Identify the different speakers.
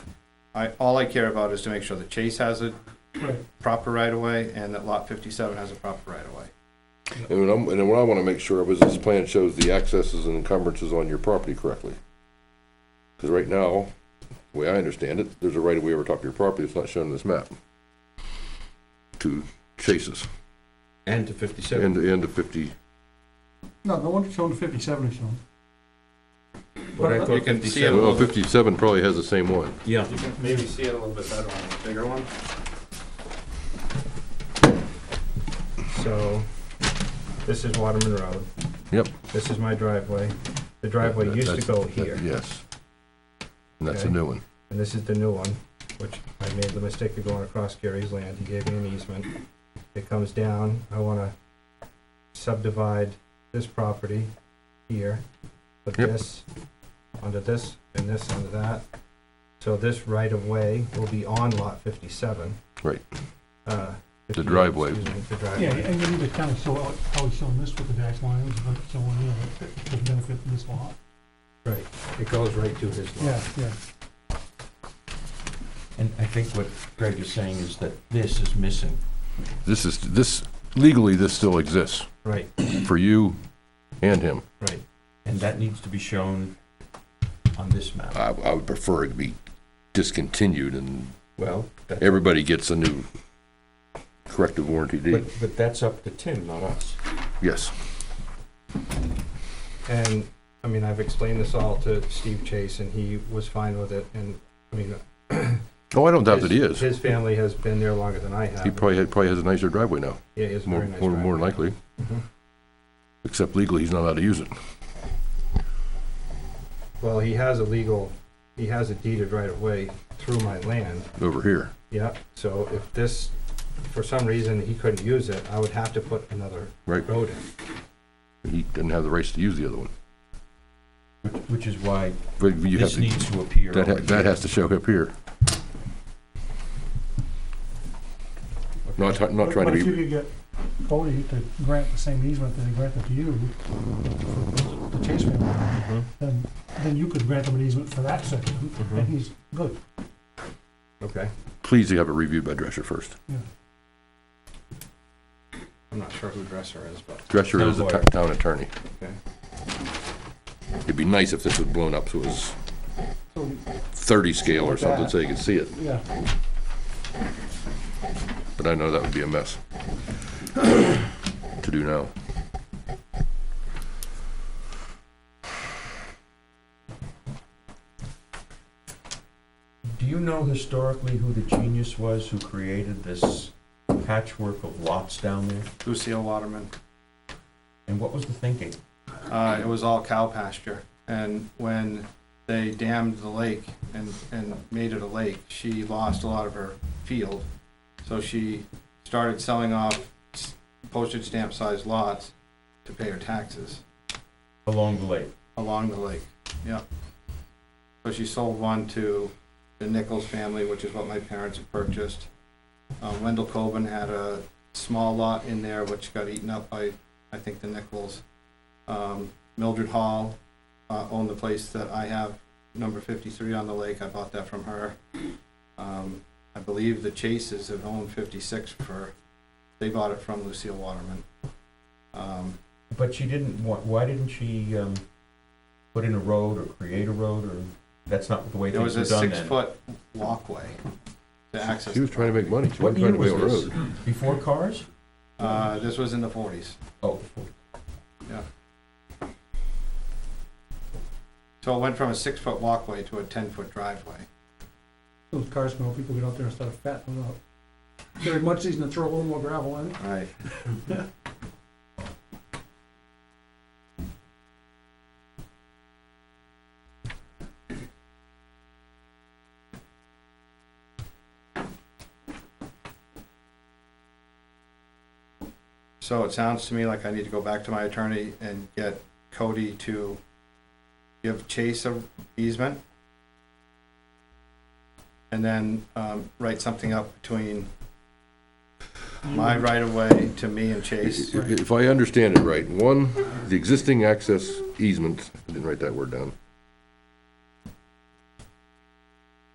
Speaker 1: I, all I care about is to make sure that Chase has a
Speaker 2: Right.
Speaker 1: proper right of way and that lot fifty-seven has a proper right of way.
Speaker 3: And what I'm, and what I wanna make sure of is this plan shows the accesses and encumbrances on your property correctly. Cause right now, the way I understand it, there's a right of way over top of your property that's not shown in this map. To Chase's,
Speaker 4: And to fifty-seven.
Speaker 3: end, end of fifty,
Speaker 2: No, the one shown fifty-seven is shown.
Speaker 4: But I
Speaker 2: You
Speaker 4: thought
Speaker 1: can see
Speaker 4: 57
Speaker 1: it.
Speaker 3: well, fifty-seven probably has the same one.
Speaker 4: Yeah,
Speaker 1: You can maybe see it a little bit better on the bigger one. So, this is Waterman Road.
Speaker 3: Yep.
Speaker 1: This is my driveway. The driveway used to go here,
Speaker 3: Yes. And that's a
Speaker 1: Okay.
Speaker 3: new one.
Speaker 1: and this is the new one, which I made the mistake of going across Gary's land. He gave me an easement. It comes down, I wanna subdivide this property here, put
Speaker 3: Yep.
Speaker 1: this under this and this under that. So this right of way will be on lot fifty-seven.
Speaker 3: Right.
Speaker 1: Uh,
Speaker 3: The
Speaker 1: 58,
Speaker 3: driveway.
Speaker 1: Excuse me, the
Speaker 2: Yeah,
Speaker 1: driveway.
Speaker 2: and you need to kind of show out how he's showing this with the dash lines, but showing here, but the benefit of this lot.
Speaker 1: It goes right to his
Speaker 2: Yeah,
Speaker 1: lot.
Speaker 2: yeah.
Speaker 4: and I think what Greg is saying is that this is missing.
Speaker 3: This is, this, legally, this still exists
Speaker 1: Right,
Speaker 3: for you and him.
Speaker 1: right.
Speaker 4: And that needs to be shown on this map.
Speaker 3: I, I would prefer it to be discontinued and
Speaker 4: Well, that-
Speaker 3: everybody gets a new corrective warranty
Speaker 4: but,
Speaker 3: deed.
Speaker 4: but that's up to Tim, not us.
Speaker 3: Yes.
Speaker 1: And, I mean, I've explained this all to Steve Chase and he was fine with it and, I mean.
Speaker 3: Oh, I don't doubt that he
Speaker 1: his-
Speaker 3: is.
Speaker 1: His family has been there longer than I have.
Speaker 3: He probably, had- probably has a nicer driveway now,
Speaker 1: Yeah, it's
Speaker 3: more,
Speaker 1: very nice.
Speaker 3: more, more than likely.
Speaker 1: Mhm.
Speaker 3: Except legally, he's not allowed to use it.
Speaker 1: Well, he has a legal, he has a deeded right of way through my land,
Speaker 3: over here.
Speaker 1: yeah, so if this, for some reason, he couldn't use it, I would have to put another
Speaker 3: Right.
Speaker 1: road in.
Speaker 3: He doesn't have the rights to use the other one.
Speaker 4: Which which is why
Speaker 3: But you have
Speaker 4: this
Speaker 3: to,
Speaker 4: needs to appear.
Speaker 3: that, ha-
Speaker 4: over
Speaker 3: that
Speaker 4: here.
Speaker 3: has to show up here. Not, try- not
Speaker 2: But-
Speaker 3: trying to
Speaker 2: But if you
Speaker 3: be,
Speaker 2: could get Bodie to grant the same easement that he granted to you, for the Chase family,
Speaker 3: Mm-hmm.
Speaker 2: then, then you could grant him an easement for that section, and he's good.
Speaker 1: Okay,
Speaker 3: please have it reviewed by Drescher first.
Speaker 1: I'm not sure who Dresser is, but,
Speaker 3: Drescher
Speaker 4: Town
Speaker 3: is the
Speaker 4: lawyer.
Speaker 3: t- town attorney.
Speaker 1: Okay.
Speaker 3: It'd be nice if this was blown up so it was
Speaker 2: So,
Speaker 3: thirty scale or
Speaker 2: Like
Speaker 3: something
Speaker 2: that.
Speaker 3: so you could see it,
Speaker 2: yeah,
Speaker 3: but I know that would be a mess to do now.
Speaker 4: Do you know historically who the genius was who created this patchwork of lots down there?
Speaker 1: Lucille Waterman.
Speaker 4: And what was the thinking?
Speaker 1: Uh, it was all cow pasture. And when they dammed the lake and, and made it a lake, she lost a lot of her field. So she started selling off s- postage stamp sized lots to pay her taxes
Speaker 4: Along the lake.
Speaker 1: along the lake. Yep. So she sold one to the Nichols family, which is what my parents had purchased. Uh, Wendell Coben had a small lot in there which got eaten up by, I think, the Nichols. Um, Mildred Hall uh, owned the place that I have, number 53 on the lake. I bought that from her. Um, I believe the Chases have owned 56 for, they bought it from Lucille Waterman. Um,
Speaker 4: But she didn't, why, why didn't she, um, put in a road or create a road or, that's not the way
Speaker 1: There
Speaker 4: things
Speaker 1: was
Speaker 4: were
Speaker 1: a
Speaker 4: done then?
Speaker 1: six-foot walkway to access.
Speaker 3: He was trying to make money. She
Speaker 4: What
Speaker 3: wasn't trying
Speaker 4: year
Speaker 3: to build
Speaker 4: was
Speaker 3: a
Speaker 4: this?
Speaker 3: road.
Speaker 4: Before cars?
Speaker 1: Uh, this was in the forties.
Speaker 4: Oh,
Speaker 1: So it went from a six-foot walkway to a ten-foot driveway.
Speaker 2: those cars smell, people get out there and start fattening them up. Very much easier to throw a little more gravel in.
Speaker 1: Right. So it sounds to me like I need to go back to my attorney and get Cody to give Chase a easement. And then, um, write something up between my right of way to me and Chase.
Speaker 3: If I understand it right, one, the existing access easement, I didn't write that word down,